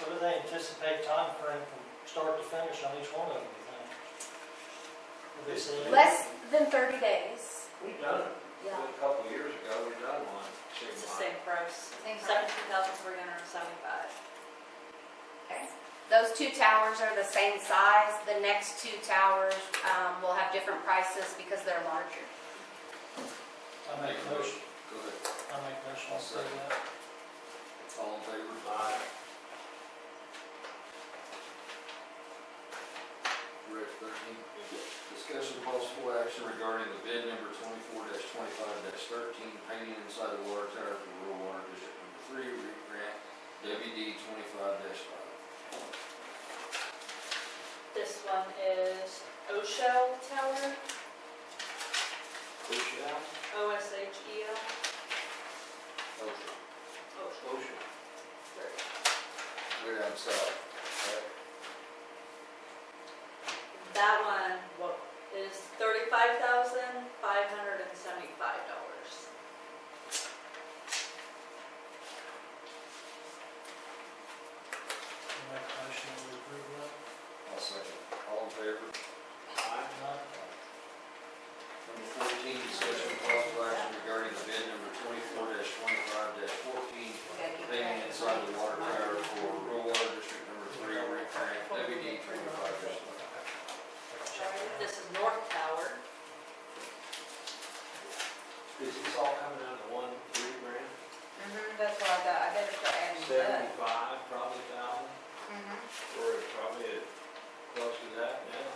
What do they anticipate time frame from start to finish on each one of them, you think? Will they say- Less than thirty days. We done it Yeah. a couple of years ago, we done one. It's the same price, Same price. seventeen thousand three hundred and seventy-five. Okay. Those two towers are the same size. The next two towers um, will have different prices because they're larger. I make a motion, Go ahead. I make a motion, I'll say that. All in favor? Aye. Rick, thirteen. Discussion of possible action regarding the bid number twenty-four twenty-five thirteen, painting inside the water tower for rural water district number three, REIT grant WD twenty-five five. This one is Oshel Tower, Ocean? O S H E L. Ocean. Oshel. Ocean. There you Way down south. go. That one, what, is thirty-five thousand five hundred and seventy-five dollars. I make a motion, we approve that. I'll second. All in favor? Aye. Not- Number fourteen, discussion of possible action regarding the bid number twenty-four twenty-five fourteen, payment inside the water tower for rural water district number three, Ori Grant, WD twenty-five This is North Tower. Is this all coming out of one three grand? That's what I got. I better start Seventy-five, probably thousand, or probably close to that now.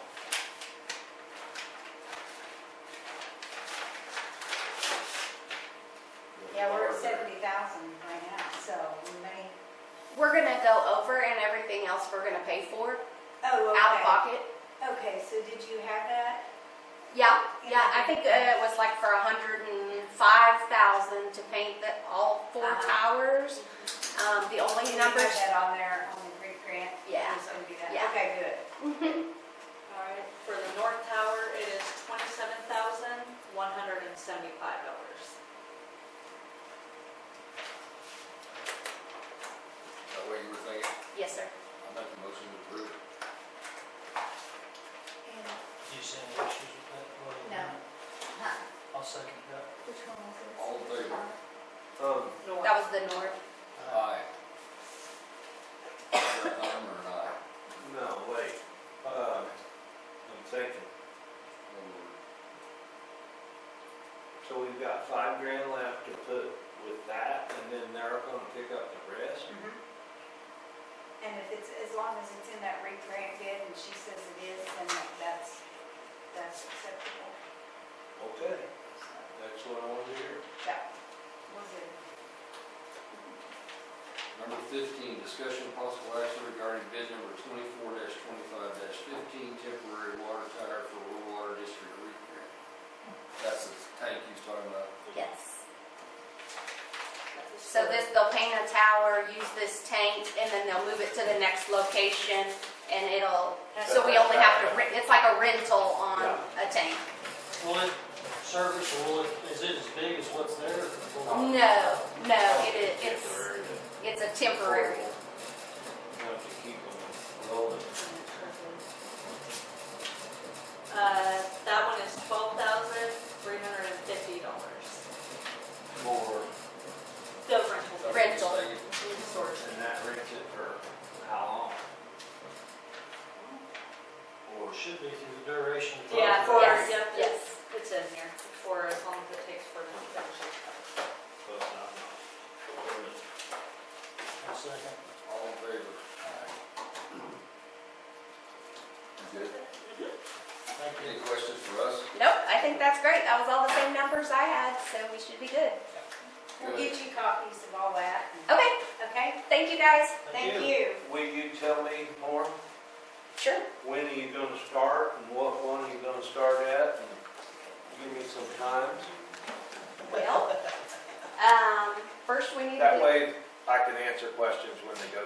Yeah, we're at seventy thousand right now, so we may, We're gonna go over and everything else we're gonna pay for oh, out of okay. pocket. Okay, so did you have that? Yeah, yeah. I think uh, it was like for a hundred and five thousand to paint the all 4 Uh-huh. towers. Um, the only You numbers. have that on there, on the grant grant? Yeah. So we do that, Yeah. okay, good. All right, for the North Tower, it is twenty-seven thousand one hundred and seventy-five dollars. That way you were thinking, Yes, sir. I make a motion to approve. And, Do you see any issues with that? Well, No. huh, I'll second that. which one was Uh-huh. this? All in favor? Um, North. That was the north. Aye. Is that Aye or an aye? No, wait, uh, I'm thinking, so we've got five grand left to put with that, and then they're gonna pick up the rest? Mhm. And if it's, as long as it's in that re grant bid and she says it is, then that- that's, that's acceptable. Okay, that's what I want to hear. That was it. Number fifteen, discussion of possible action regarding bid number twenty-four twenty-five fifteen, temporary water tower for rural water district repair. That's the tank you was talking about. Yes. That is So for- this, they'll paint a tower, use this tank, and then they'll move it to the next location, and it'll, so we only have to, rent- it's like a rental on a tank. Will it service, or will it, is it as big as what's there? Will it- No, no, it is, it's, it's a temporary. You have to keep them rolling. Uh, that one is twelve thousand three hundred and fifty dollars. More. The rental. Rental. And that rents it for how Or Mm. it should be through the duration of the. Yeah, for, Yes, yep, yes. it's, it's in here, for as long as it takes for them to finish long? But I'm not. I'll second. All in favor? You Good. Thank you. Any questions for us? Nope, I think that's great. That was all the same numbers I had, so we should be good. We'll get you copies of all that, and- Okay, okay? thank you guys. Thank Thank you. Will you tell me more? Sure. When are you gonna start, and what one are you gonna start at? And Give me some times. Well, um, first we need to. That way, I can answer questions when they go